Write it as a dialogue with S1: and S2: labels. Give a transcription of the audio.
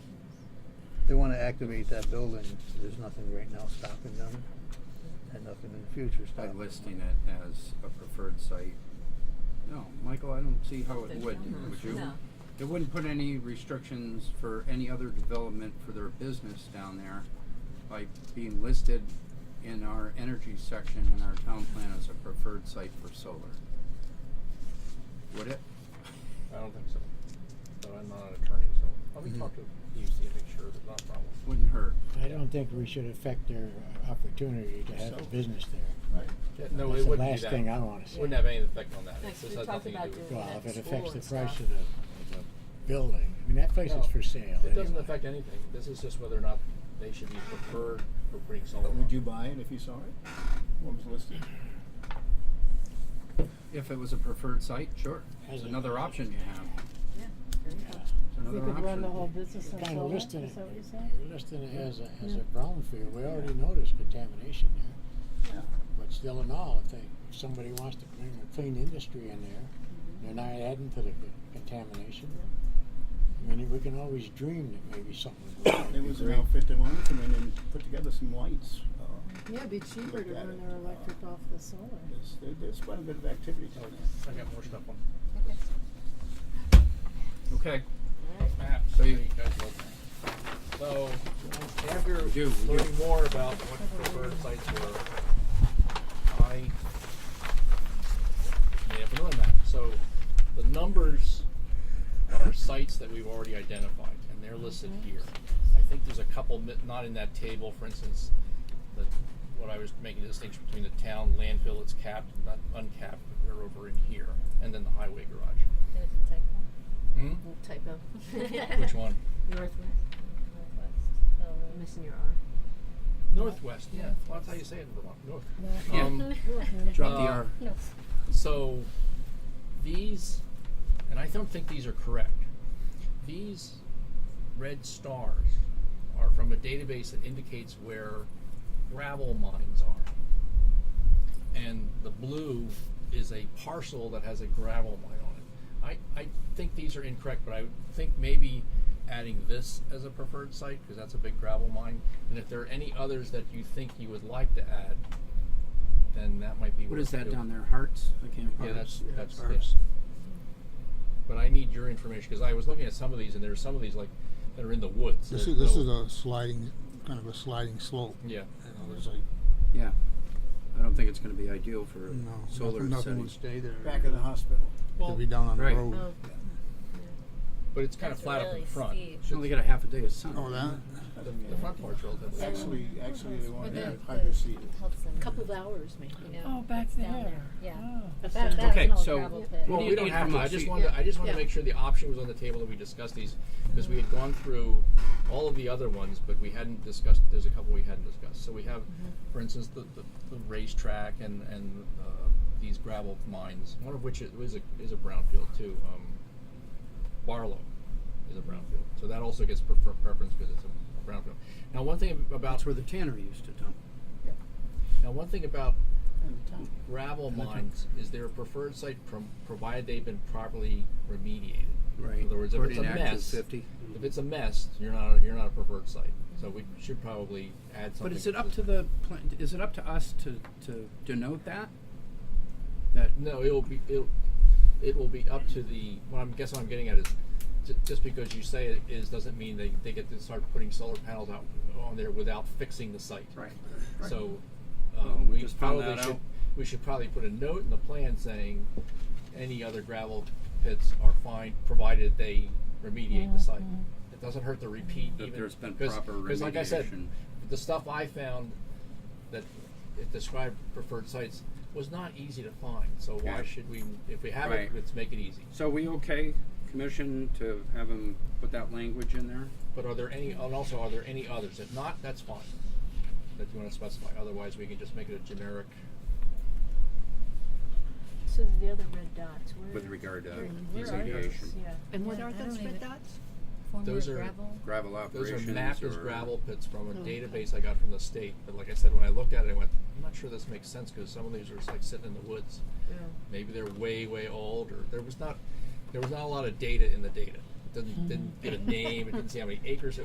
S1: they wanna activate that building, there's nothing right now stopping them, and nothing in the future
S2: By
S1: stopping them.
S2: listing it as a preferred site. No, Michael, I don't see how it
S3: There's
S2: would,
S3: no-
S2: would you?
S3: no.
S2: It wouldn't put any restrictions for any other development for their business down there by being listed in our energy section in our town plan as a preferred site for solar. Would it?
S4: I don't think so. But I'm not an attorney, so let me
S5: Mm-hmm.
S1: Mhm.
S4: talk to UC and make sure there's not a problem.
S2: Wouldn't hurt.
S5: I don't think we should affect their uh, opportunity to have a
S4: So-
S5: business there.
S6: Right.
S4: No,
S5: That's
S4: it
S5: the
S4: wouldn't be
S5: last
S4: that.
S5: thing I wanna see.
S4: Wouldn't have any effect on that.
S3: Like,
S4: This
S3: we
S4: has
S3: talked
S4: nothing to
S3: about
S4: do with
S3: doing
S4: it.
S5: Well, if
S3: That
S5: it affects
S3: school
S5: the
S3: and
S5: price
S3: stuff.
S5: of the, of the building, I mean, that place is
S4: No,
S5: for sale
S4: It doesn't
S5: anyway.
S4: affect anything. This is just whether or not they should be preferred for putting solar.
S6: But would
S4: on.
S6: you buy it if you saw it? What was listed?
S2: If it was a preferred site, sure. It's
S5: As a-
S2: another option you have.
S3: Yeah, there you go.
S2: It's another
S7: You
S2: option.
S7: could run the whole business
S5: You're
S7: on
S5: Kinda
S7: solar, is
S5: listing
S7: that
S5: it,
S7: what you're saying?
S5: you're listing it as a, as a brownfield, we already noticed contamination there.
S6: Yeah.
S5: But still in all, if they, if somebody wants to bring a clean industry in there,
S7: Mm-hmm.
S5: they're not adding to the c- contamination. I mean, we can always dream that maybe something would be
S6: It was an
S5: great.
S6: outfit that wanted to come in and put together some lights. Uh,
S7: Yeah, it'd be cheaper
S6: Look
S7: to
S6: at
S7: run
S6: it,
S7: their electric
S6: uh,
S7: off the solar.
S6: there's, there- there's quite a bit of activity down there.
S4: I got more stuff on.
S2: Okay,
S4: Perhaps.
S2: So
S4: So
S2: you-
S4: So after
S2: We do, we do.
S4: learning more about what preferred sites were, I made up another map. So the numbers are sites that we've already identified, and they're listed here. I think there's a couple mi- not in that table. For instance, the, what I was making a distinction between the town landfill, it's capped, not uncapped, but they're over in here, and then the highway garage.
S3: There was a
S4: Hmm?
S8: Typo.
S4: Which one?
S8: Northwest.
S3: typo.
S8: I'm
S3: Northwest.
S8: missing your R.
S4: Northwest, yeah. Well, that's how you say it in Vermont. North.
S2: Yeah.
S4: Um,
S2: drop the
S4: Uh,
S2: R.
S3: No.
S4: so these, and I don't think these are correct. These red stars are from a database that indicates where gravel mines are, and the blue is a parcel that has a gravel mine on it. I, I think these are incorrect, but I think maybe adding this as a preferred site because that's a big gravel mine. And if there are any others that you think you would like to add, then that might be
S2: What is
S4: to
S2: that
S4: do.
S2: down there? Hearts? I can't.
S4: Yeah, that's that's
S2: Hearts.
S4: this. But I need your information because I was looking at some of these, and there's some of these like that are in the woods.
S9: This
S4: that
S9: is, this
S4: no-
S9: is a sliding, kind of a sliding slope.
S4: yeah.
S9: You know, there's like,
S2: Yeah. I don't think it's gonna be ideal for
S9: no,
S2: solar
S9: nothing, nothing
S2: setting.
S9: would stay there.
S6: Back of the hospital.
S4: Well,
S9: It'd be down on the
S2: Right.
S9: road.
S8: Oh.
S4: but it's kind of
S3: That's
S4: flat up in
S3: really
S4: the front.
S3: steep.
S2: Should only get a half a day of sun.
S9: Oh, that?
S4: The front part's relatively.
S6: Actually, actually, they wanted
S3: the-
S6: to hydro seed.
S3: Health center.
S8: Couple of hours, maybe.
S3: Yeah,
S7: Oh, back
S3: it's down
S7: there.
S3: Yeah.
S7: Oh.
S3: But that, that's
S2: Okay,
S3: an old
S2: so-
S3: gravel pit.
S2: What
S4: Well,
S2: do you
S4: we don't
S2: need
S4: have
S2: from
S4: to. I
S2: us?
S4: just
S2: You-
S4: wanted. To, I just wanted
S8: Yeah.
S4: to make sure the option was on the table that we discussed these because we had gone through all of the other ones, but we hadn't discussed. There's a couple we hadn't discussed. So we have,
S2: Mm-hmm.
S4: for instance, the, the, the racetrack and and uh, these gravel mines. One of which is is a, is a brownfield too. Um, Barlow is a brownfield, so that also gets prefer- preference because it's a brownfield. Now, one thing about
S2: That's where the tannery used to dump.
S4: now one thing about
S6: And the town.
S4: gravel mines is their preferred site prom- provided they've been properly remediated.
S2: Right.
S4: In other words, if
S2: According
S4: it's a
S2: to Act
S4: mess,
S2: 250.
S4: if it's a mess, you're not a, you're not a preferred site. So we should probably add something.
S2: But is it up to the, plan- is it up to us to, to denote that? That,
S4: No, it'll be it'll, it will be up to the. What I'm guessing I'm getting at is, ju- just because you say it is doesn't mean they, they get to start putting solar panels out on there without fixing the site.
S2: right.
S4: So
S2: Well,
S4: um,
S2: we
S4: we
S2: just found
S4: probably
S2: that
S4: should
S2: out.
S4: we should probably put a note in the plan saying any other gravel pits are fine provided they remediate the site. It doesn't hurt to repeat
S2: That
S4: even
S2: there's been
S4: because
S2: proper
S4: because like I said,
S2: remediation.
S4: the stuff I found that it described preferred sites was not easy to find. So why
S2: Yeah.
S4: should we if we have
S2: Right.
S4: it let's make it easy.
S2: So we okay, commission to have him put that language in there?
S4: But are there any and also are there any others? If not, that's fine. That you want to specify. Otherwise we can just make it a generic
S8: So the other red dots, where?
S2: With regard to
S8: where are those?
S2: remediation,
S8: Yeah.
S7: And what
S8: Yeah,
S7: are
S8: I
S7: those
S8: don't
S7: red
S8: even-
S7: dots?
S4: Those
S8: Former
S4: are-
S8: gravel.
S2: gravel
S4: Those are
S2: operations
S4: mapped as
S2: or-
S4: gravel pits from a
S7: Oh.
S4: database I got from the state. But like I said, when I looked at it, I went, I'm not sure this makes sense because some of these are just like sitting in the woods. Maybe they're way, way old, or there was not, there was not a lot of data in the data. It didn't, didn't get a name. It didn't see how many acres it